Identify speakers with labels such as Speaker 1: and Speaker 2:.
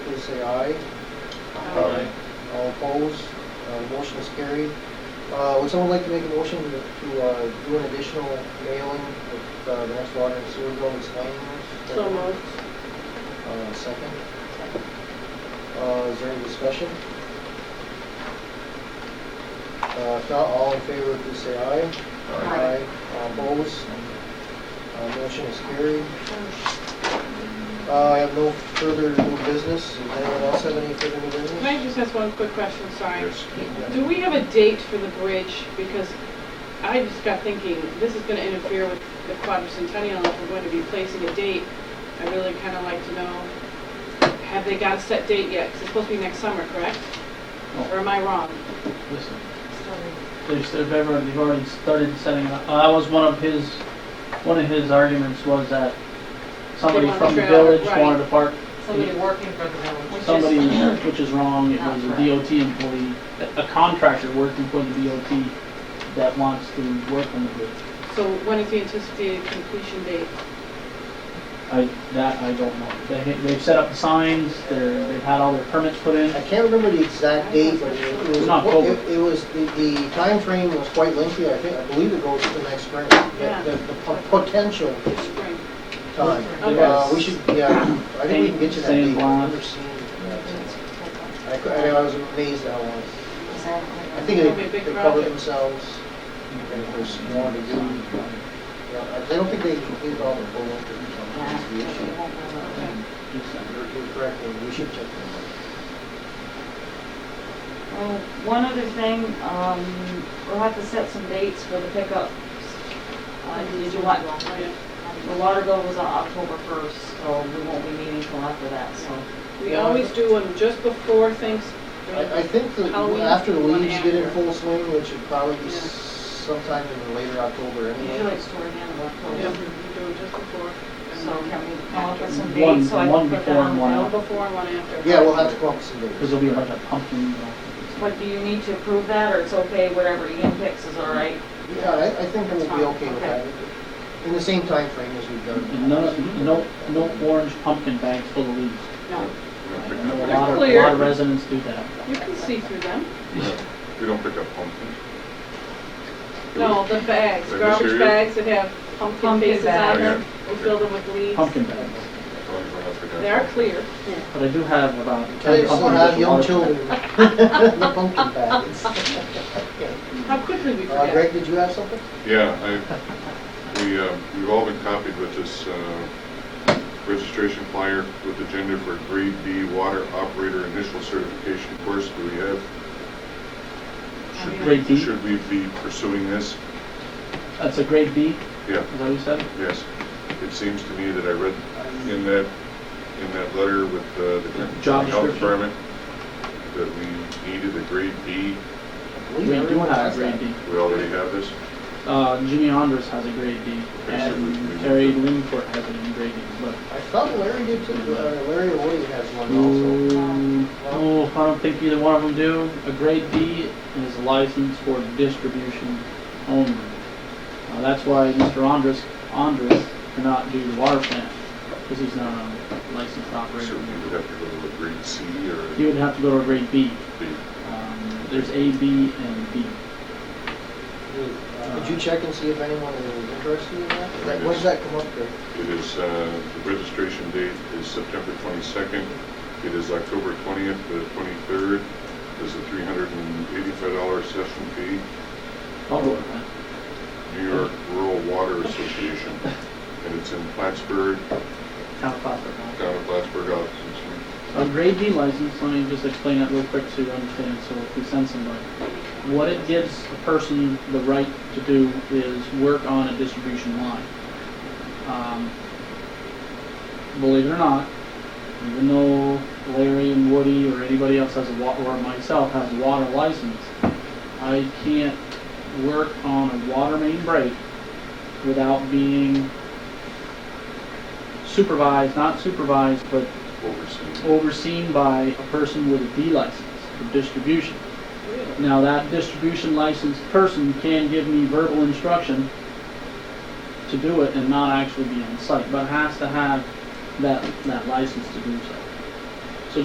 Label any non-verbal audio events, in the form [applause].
Speaker 1: say aye.
Speaker 2: Aye.
Speaker 1: All opposed, Uh, motion is carried. Uh, Would someone like to make a motion to to, uh, do an additional mailing with uh, the next water and sewer bill explaining this?
Speaker 3: So moved.
Speaker 1: Uh, Second? Uh, Is there any discussion? Uh, If not, all in favor, please say aye.
Speaker 3: Aye.
Speaker 1: All opposed? Uh, Motion is carried. Uh, I have no further new business. Does anyone else have any further new business?
Speaker 3: Can I just ask one quick question, sorry?
Speaker 2: There's-
Speaker 3: Do we have a date for the bridge? Because I just got thinking, this is gonna interfere with the quadricentennial, if we're going to be placing a date. I really kinda like to know, have they got a set date yet? 'Cause it's supposed to be next summer, correct? Or am I wrong?
Speaker 4: Listen, there's, they've ever, they've already started setting it up. Uh, That was one of his, one of his arguments was that somebody
Speaker 3: want
Speaker 4: from
Speaker 3: the
Speaker 4: the
Speaker 3: trail,
Speaker 4: village
Speaker 3: right.
Speaker 4: wanted to park,
Speaker 5: Somebody working for the village.
Speaker 4: somebody, which is wrong, it
Speaker 5: Not
Speaker 4: was a
Speaker 5: correct.
Speaker 4: DOT employee, a- a contractor working for the DOT that wants to work on the bridge.
Speaker 3: So when is the anticipated completion date?
Speaker 4: I, that I don't know. They, they've set up the signs, they're, they've had all their permits put in.
Speaker 1: I can't remember the exact date, but it was.
Speaker 4: It's not October.
Speaker 1: It it was, the, the timeframe was quite lengthy, I think, I believe it goes to the next spring. the-
Speaker 3: Yeah.
Speaker 1: The, the po- potential
Speaker 3: Spring.
Speaker 1: time.
Speaker 3: Okay.
Speaker 1: Uh, we should, yeah, I think we can get you that
Speaker 4: Same
Speaker 1: date. I've never
Speaker 4: line.
Speaker 1: seen that. I cou- I was amazed at how long. I think
Speaker 3: It'll be a
Speaker 1: they,
Speaker 3: big
Speaker 1: they covered
Speaker 3: project.
Speaker 1: themselves. And of course, you wanted to do, yeah, I- I don't think they completed all the full one. That's the issue. You're you're correct, and we should check them
Speaker 5: Well, One other thing, um, we'll have to set some dates for the pickup. Uh, did you want, the water bill was on October first, so we won't be meeting till after that, so.
Speaker 3: We always do them just before things.
Speaker 1: I, I think that
Speaker 3: Halloween,
Speaker 1: after the
Speaker 3: one
Speaker 1: leaves get in
Speaker 3: after.
Speaker 1: full swing, which should probably be
Speaker 3: Yeah.
Speaker 1: sometime in later October
Speaker 5: Usually
Speaker 1: anyway.
Speaker 5: it's toward the end of
Speaker 3: Yeah, we
Speaker 5: October,
Speaker 3: do it just before. and
Speaker 5: so
Speaker 3: then
Speaker 5: can we come up with some
Speaker 4: One-
Speaker 5: dates so I
Speaker 4: one
Speaker 5: can put that
Speaker 4: before
Speaker 5: on
Speaker 4: and
Speaker 5: the
Speaker 4: one
Speaker 5: bill?
Speaker 3: One before and one after.
Speaker 1: Yeah, we'll have to come up with some dates.
Speaker 4: Because there'll be like a pumpkin, you know.
Speaker 5: But do you need to approve that, or it's okay, whatever Ian picks is all right?
Speaker 1: Yeah, I, I think we'll be okay with that, in the same time frame as we've done.
Speaker 4: No, no, no orange pumpkin bags full of leaves.
Speaker 3: No,
Speaker 4: I know a lot of, a
Speaker 3: Clear.
Speaker 4: lot of residents do that.
Speaker 3: you can see through them.
Speaker 2: We don't pick up pumpkins.
Speaker 3: No, the bags,
Speaker 2: They're
Speaker 3: garbage
Speaker 2: cereal?
Speaker 3: bags that have pumpkin
Speaker 5: Pumpkin
Speaker 3: faces on
Speaker 5: bags.
Speaker 3: them, we fill them with leaves.
Speaker 4: Pumpkin bags.
Speaker 3: They are clear.
Speaker 4: But I do have about
Speaker 1: They
Speaker 4: ten
Speaker 1: still
Speaker 4: pumpkins.
Speaker 1: have
Speaker 4: with
Speaker 1: young
Speaker 4: water.
Speaker 1: children
Speaker 4: [laughs]
Speaker 1: in the pumpkin bags.
Speaker 3: How quickly we
Speaker 1: Uh,
Speaker 3: forget.
Speaker 1: Greg, did you have something?
Speaker 2: Yeah, I, we, uh, we've all been copied with this uh, registration flyer with agenda for grade B water operator initial certification course that we have. Should-
Speaker 4: Grade B?
Speaker 2: Should we be pursuing this?
Speaker 4: That's a grade B,
Speaker 2: Yeah,
Speaker 4: is that what you said?
Speaker 2: yes. It seems to me that I read in that, in that letter with uh, the
Speaker 4: Job
Speaker 2: health
Speaker 4: description.
Speaker 2: department that we needed a grade B.
Speaker 4: We do have a grade B.
Speaker 2: We already have this?
Speaker 4: Uh, Jimmy Andres has a grade B,
Speaker 2: Okay, so we- we-
Speaker 4: and Terry Lindfort has it in grade B, but.
Speaker 1: I thought Larry did too, Uh, Larry or Woody has one also.
Speaker 4: Mm, No, I don't think either one of them do. A grade B is licensed for distribution only. Uh, that's why Mr. Andres, Andres cannot do the water plant, because he's not a licensed
Speaker 2: So
Speaker 4: operator.
Speaker 2: we would have to go to a grade C or
Speaker 4: He
Speaker 2: a
Speaker 4: would have to go to a grade B.
Speaker 2: B?
Speaker 4: Um, There's A, B, and B.
Speaker 1: Uh, Could you check and see if anyone is interested in that?
Speaker 2: There it
Speaker 1: That- When does
Speaker 2: is.
Speaker 1: that come up, Greg?
Speaker 2: It is, uh, the registration date is September 22nd. It is October 20th to the 23rd. There's a $385 session fee,
Speaker 4: Public plant.
Speaker 2: New York Rural Water Association, and it's in Plattsburgh,
Speaker 4: Town of Plattsburgh. huh?
Speaker 2: down in Plattsburgh, out
Speaker 4: A grade B license, let me just explain that real quick so you understand, so if we send somebody. What it gives a person the right to do is work on a distribution line. Um, Believe it or not, even though Larry and Woody or anybody else has a wa, or myself has a water license, I can't work on a water main break without being supervised, not supervised, but
Speaker 2: overseas.
Speaker 4: overseen by a person with a D license for distribution. Now, that distribution licensed person can give me verbal instruction to do it and not actually be on site, but has to have that, that license to do so.